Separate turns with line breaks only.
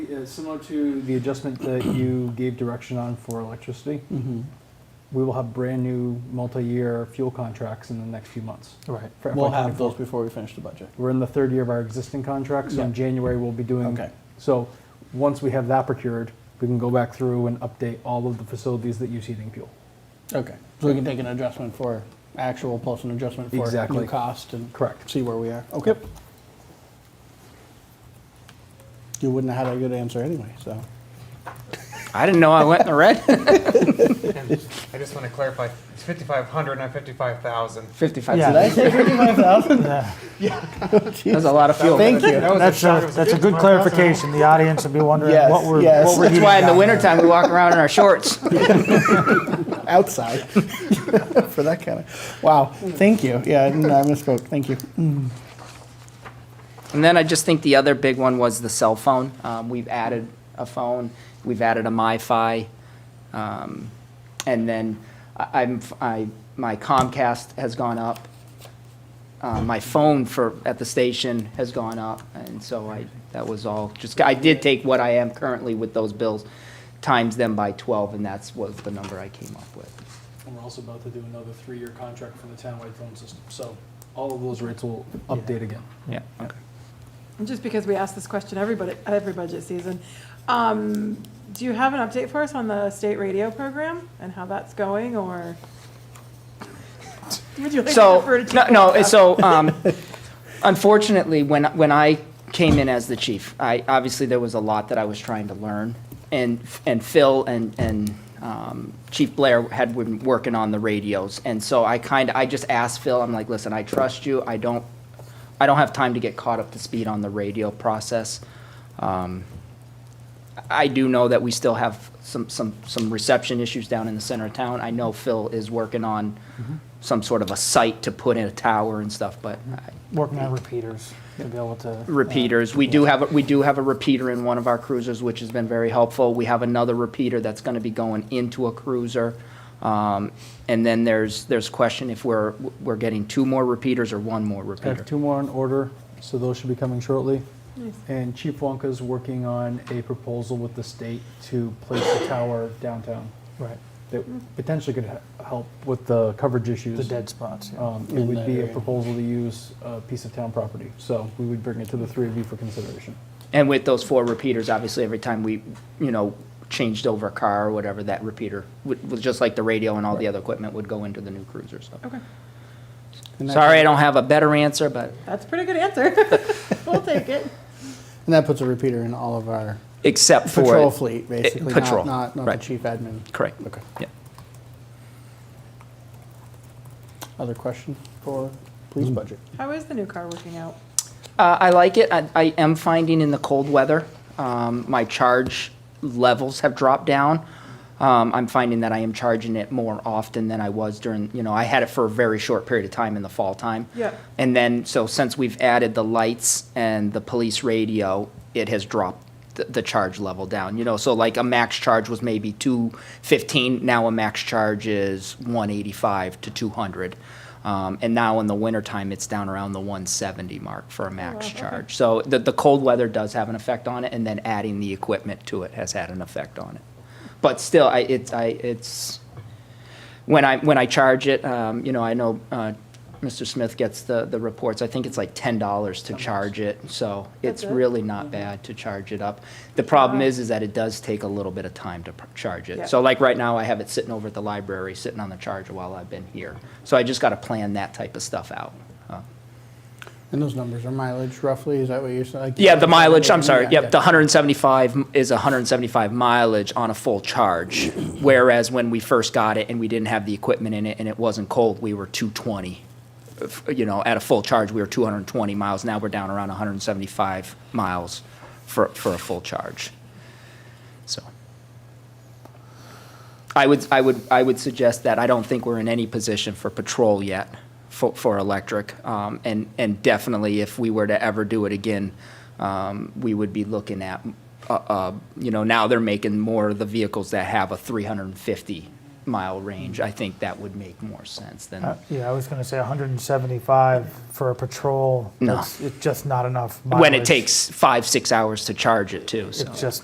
uh, similar to the adjustment that you gave direction on for electricity,
Mm-hmm.
we will have brand-new multi-year fuel contracts in the next few months.
Right.
For
We'll
FY24.
have those before we finish the budget.
We're in the third year of our existing contract, so in
Yeah.
January, we'll be doing.
Okay.
So, once we have that procured, we can go back through and update all of the facilities that use heating fuel.
Okay. So we can take an adjustment for actual plus an adjustment for
Exactly.
new cost and
Correct.
see where we are. Okay. You wouldn't have had a good answer anyway, so.
I didn't know I went in the red.
And I just want to clarify, it's 5,500, not 55,000.
55.
Yeah.
Did I say 55,000?
Yeah.
That's a lot of fuel.
Thank you.
That was
That's
shot. It
a,
was
that's a good
55,000.
clarification. The audience would be wondering
Yes,
what we're,
yes.
what we're
That's
eating
why in the
down there.
wintertime we walk around in our shorts.
Outside. For that kind of, wow. Thank you. Yeah, I didn't- I misspoke. Thank you.
And then I just think the other big one was the cell phone. Um, we've added a phone, we've added a MiFi, um, and then I, I'm I my Comcast has gone up. Uh, my phone for at the station has gone up, and so I that was all. Just I did take what I am currently with those bills, times them by twelve, and that's was the number I came up with.
And we're also about to do another three-year contract for the townwide phone system, so all of those rates will update again.
Yeah. Okay.
And Just because we ask this question every budget, every budget season, um, do you have an update for us on the state radio program and how that's going, or? Would you like to refer
So,
to?
no,
Chief
no,
Wagstaff?
it's so, um, unfortunately, when, when I came in as the chief, I, obviously, there was a lot that I was trying to learn. And, and Phil and, and, um, Chief Blair had been working on the radios. And so I kind of, I just asked Phil, I'm like, listen, I trust you. I don't, I don't have time to get caught up to speed on the radio process. Um, I do know that we still have some, some, some reception issues down in the center of town. I know Phil is working on some sort of a site to put in a tower and stuff, but I-
Working on repeaters to be able to. uh,
repeaters. We do have, a- we do have a repeater in one of our cruisers, which has been very helpful. We have another repeater that's gonna be going into a cruiser. Um, and then there's, there's question if we're, we're getting two more repeaters or one more
I have
repeater.
two more in order, so those should be coming shortly.
Nice.
And Chief Wonka's working on a proposal with the state to place a tower downtown
Right,
that potentially could he- help with the coverage issues.
the dead spots, yeah.
Um, It
In
would
that
be a
area.
proposal to use a piece of town property, so we would bring it to the three of you for consideration.
And with those four repeaters, obviously, every time we, you know, changed over a car or whatever, that repeater, would was just like the radio and all the other equipment would go into the new cruiser, so.
Okay,
And that-
Sorry, I don't have a better answer, but
that's a pretty good answer. We'll take it.
And that puts a repeater in all of our
except for.
patrol fleet, basically.
It-
not-
Patrol,
Not, not the
right.
chief admin.
Correct.
Okay.
Yeah.
Other question for police budget?
How is the new car working out?
Uh, I like it. I, I am finding in the cold weather, um, my charge levels have dropped down. Um, I'm finding that I am charging it more often than I was during, you know, I had it for a very short period of time in the fall time.
Yeah.
And then, so since we've added the lights and the police radio, it has dropped the, the charge level down, you know, so like a max charge was maybe two fifteen, now a max charge is one eighty-five to two hundred. Um, and now in the wintertime, it's down around the one seventy mark for a max
okay.
charge. So the, the cold weather does have an effect on it, and then adding the equipment to it has had an effect on it. But still, I, it's, I, it's, when I, when I charge it, um, you know, I know, uh, Mr. Smith gets the, the reports, I think it's like ten dollars to charge it, so
That's
it's
it?
really not bad to charge it up. The problem
Wow.
is, is that it does take a little bit of time to pr- charge
Yeah.
it. So like right now, I have it sitting over at the library, sitting on the charger while I've been here. So I just gotta plan that type of stuff out. Uh,
And those numbers are mileage roughly, is that what you're saying? Like-
Yeah, the mileage, I'm sorry,
Yeah,
yep, the 175 is 175 mileage on a full charge, whereas when we first got it and we didn't have the equipment in it and it wasn't cold, we were 220. If- You know, at a full charge, we were 220 miles, now we're down around 175 miles for, for a full charge. So. I would, I would, I would suggest that I don't think we're in any position for patrol yet for, for electric. Um, and, and definitely if we were to ever do it again, um, we would be looking at, uh, uh, you know, now they're making more of the vehicles that have a three hundred and fifty mile range. I think that would make more sense
Uh,
than,
Yeah, I was gonna say hundred and seventy-five for a patrol.
No.
It's it's just not enough mileage.
when it takes five, six hours to charge it too, so.
It's just